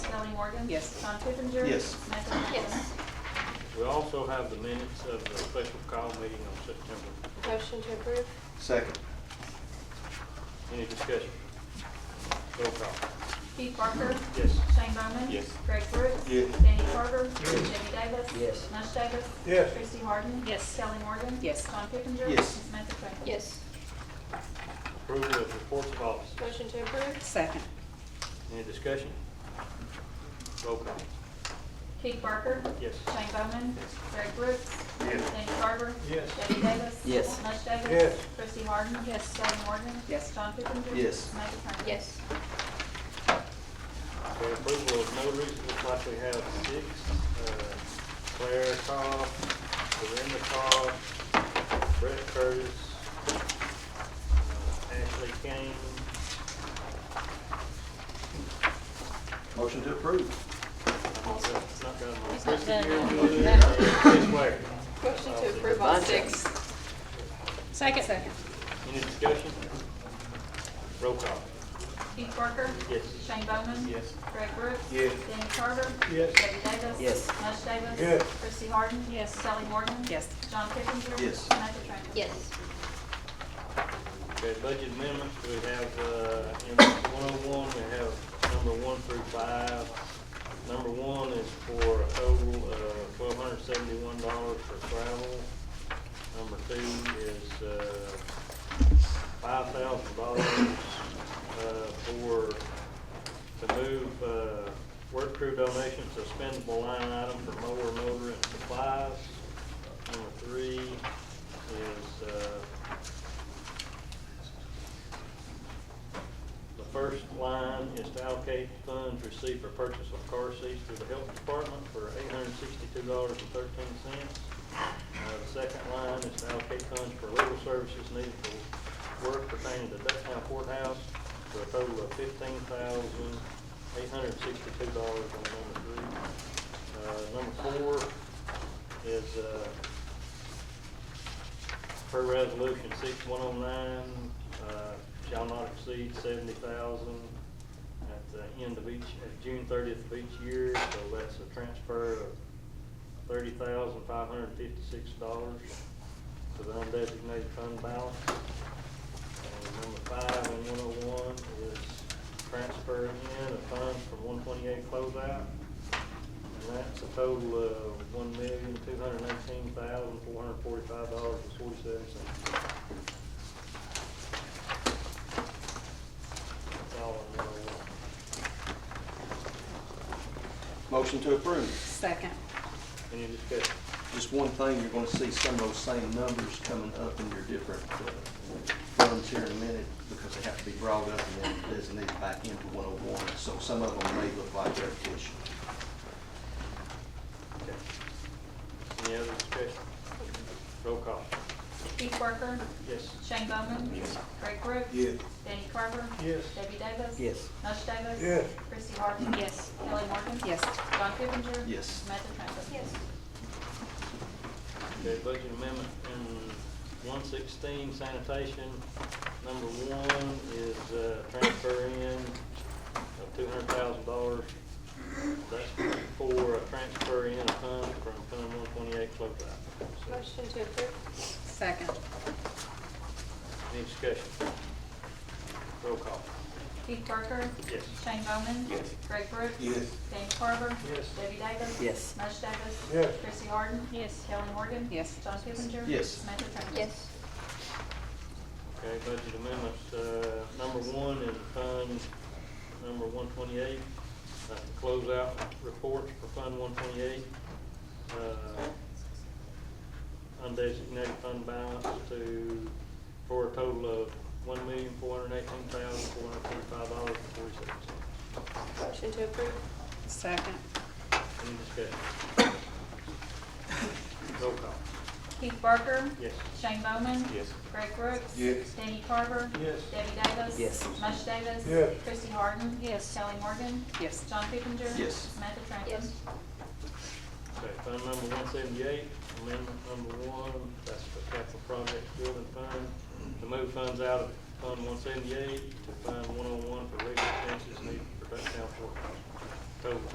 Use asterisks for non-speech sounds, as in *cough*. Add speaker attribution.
Speaker 1: Morgan?
Speaker 2: Yes.
Speaker 1: Sean Kipinger?
Speaker 3: Yes.
Speaker 1: Michael Miller?
Speaker 4: Yes.
Speaker 5: We also have the minutes of the special call meeting on September.
Speaker 4: Motion to approve?
Speaker 3: Second.
Speaker 5: Any discussion? Roll call.
Speaker 1: Keith Parker?
Speaker 5: Yes.
Speaker 1: Shane Bowman?
Speaker 5: Yes.
Speaker 1: Greg Brooks?
Speaker 3: Yes.
Speaker 1: Danny Carver? Jimmy Davis?
Speaker 6: Yes.
Speaker 1: mush Davis?
Speaker 5: Yes.
Speaker 1: Christie Harden?
Speaker 2: Yes.
Speaker 1: Kelly Morgan?
Speaker 2: Yes.
Speaker 1: Sean Kipinger?
Speaker 3: Yes.
Speaker 1: Samantha Franklin?
Speaker 4: Yes.
Speaker 5: Approval of reports of office.
Speaker 4: Motion to approve?
Speaker 2: Second.
Speaker 5: Any discussion? Roll call.
Speaker 1: Keith Parker?
Speaker 5: Yes.
Speaker 1: Shane Bowman? Greg Brooks?
Speaker 3: Yes.
Speaker 1: Danny Carver?
Speaker 5: Yes.
Speaker 1: Debbie Davis?
Speaker 6: Yes.
Speaker 1: mush Davis?
Speaker 5: Yes.
Speaker 1: Christie Harden? Yes. Kelly Morgan?
Speaker 2: Yes.
Speaker 1: Sean Kipinger?
Speaker 3: Yes.
Speaker 1: Samantha Franklin?
Speaker 4: Yes.
Speaker 5: For approval of notaries, looks like we have six. uh, Claire Cobb, Dorinda Cobb, Brett Curtis, uh, Ashley Kane.
Speaker 3: Motion to approve.
Speaker 5: I'm not done- not done.
Speaker 4: He's not done.
Speaker 5: Christie uh, Ware. Uh,
Speaker 4: Motion to approve all six?
Speaker 2: Second. Second.
Speaker 5: Any discussion? Roll call.
Speaker 1: Keith Parker?
Speaker 5: Yes.
Speaker 1: Shane Bowman?
Speaker 5: Yes.
Speaker 1: Greg Brooks?
Speaker 5: Yes.
Speaker 1: Danny Carver?
Speaker 5: Yes.
Speaker 1: Debbie Davis?
Speaker 6: Yes.
Speaker 1: mush Davis?
Speaker 5: Yes.
Speaker 1: Christie Harden?
Speaker 2: Yes.
Speaker 1: Sally Morgan?
Speaker 2: Yes.
Speaker 1: John Kipinger?
Speaker 3: Yes.
Speaker 1: Samantha Franklin?
Speaker 4: Yes.
Speaker 5: Okay, budget amendments, we have, uh, in one oh one, we have number one through five. Number one is for a total of twelve hundred seventy-one dollars for travel. Number two is, uh, five thousand dollars, uh, for, to move, uh, work crew donations, to spendable line item for mower, motor, and supplies. Number three is, uh, The first line is to allocate funds received for purchase of car seats through the health department for eight hundred sixty-two dollars and thirteen cents. Uh, the second line is to allocate funds for legal services needed for work pertaining to Ducktown Courthouse for a total of fifteen thousand eight hundred sixty-two dollars on number three. Uh, number four is, uh, Per resolution six one oh nine, uh, shall not exceed seventy thousand at the end of each, at June thirtieth of each year, so that's a transfer of thirty thousand five hundred and fifty-six dollars to the undesignated fund balance. And number five and one oh one is transfer in of funds from one twenty-eight closeout and that's a total of one million, two hundred and eighteen thousand, four hundred and forty-five dollars and forty-seven cents. That's all I know.
Speaker 3: Motion to approve.
Speaker 2: Second.
Speaker 5: Any discussion?
Speaker 3: Just one thing, you're gonna see some of those same numbers coming up in your different uh, funds here in a minute because they have to be brought up and then designated back into 101. So some of them may look like repetition.
Speaker 5: Okay. Any other discussion? Roll call.
Speaker 1: Keith Parker?
Speaker 5: Yes.
Speaker 1: Shane Bowman?
Speaker 3: Yes.
Speaker 1: Greg Brooks?
Speaker 3: Yes.
Speaker 1: Danny Carver?
Speaker 5: Yes.
Speaker 1: Debbie Davis?
Speaker 6: Yes.
Speaker 1: mush Davis?
Speaker 5: Yes.
Speaker 1: Christie Harden?
Speaker 2: Yes.
Speaker 1: Kelly Morgan?
Speaker 2: Yes.
Speaker 1: John Kipinger?
Speaker 3: Yes.
Speaker 1: Samantha Franklin?
Speaker 4: Yes.
Speaker 5: Okay, budget amendment in one sixteen sanitation, number one is, uh, transfer in of two hundred thousand dollars. That's for a transfer in of funds from Fund one twenty-eight closeout. So,
Speaker 4: Motion to approve?
Speaker 2: Second.
Speaker 5: Any discussion? Roll call.
Speaker 1: Keith Parker?
Speaker 5: Yes.
Speaker 1: Shane Bowman? Yes. Greg Brooks?
Speaker 3: Yes.
Speaker 1: Danny Carver?
Speaker 5: Yes.
Speaker 1: Debbie Davis?
Speaker 6: Yes.
Speaker 1: mush Davis?
Speaker 5: Yes.
Speaker 1: Christie Harden?
Speaker 2: Yes.
Speaker 1: Kelly Morgan?
Speaker 2: Yes.
Speaker 1: John Kipinger?
Speaker 3: Yes.
Speaker 1: Samantha Franklin?
Speaker 4: Yes.
Speaker 5: Okay, budget amendments, uh, number one is Fund number one twenty-eight, uh, closeout reports for Fund one twenty-eight. Uh, Undesignated fund balance to, for a total of one million, four hundred eighteen thousand, four hundred forty-five dollars and forty-six cents.
Speaker 4: Motion to approve?
Speaker 2: Second.
Speaker 5: Any discussion? *coughs* Roll call.
Speaker 1: Keith Parker?
Speaker 5: Yes.
Speaker 1: Shane Bowman?
Speaker 5: Yes.
Speaker 1: Greg Brooks?
Speaker 3: Yes.
Speaker 1: Danny Carver?
Speaker 5: Yes.
Speaker 1: Debbie Davis?
Speaker 6: Yes.
Speaker 1: mush Davis?
Speaker 5: Yes.
Speaker 1: Christie Harden?
Speaker 2: Yes.
Speaker 1: Kelly Morgan?
Speaker 2: Yes.
Speaker 1: John Kipinger?
Speaker 3: Yes.
Speaker 1: Samantha Franklin?
Speaker 4: Yes.
Speaker 5: Okay, fund number one seventy-eight, amendment number one, that's for capital projects building fund, to move funds out of fund one seventy-eight to fund one oh one for legal expenses needed for downtown courthouse. Total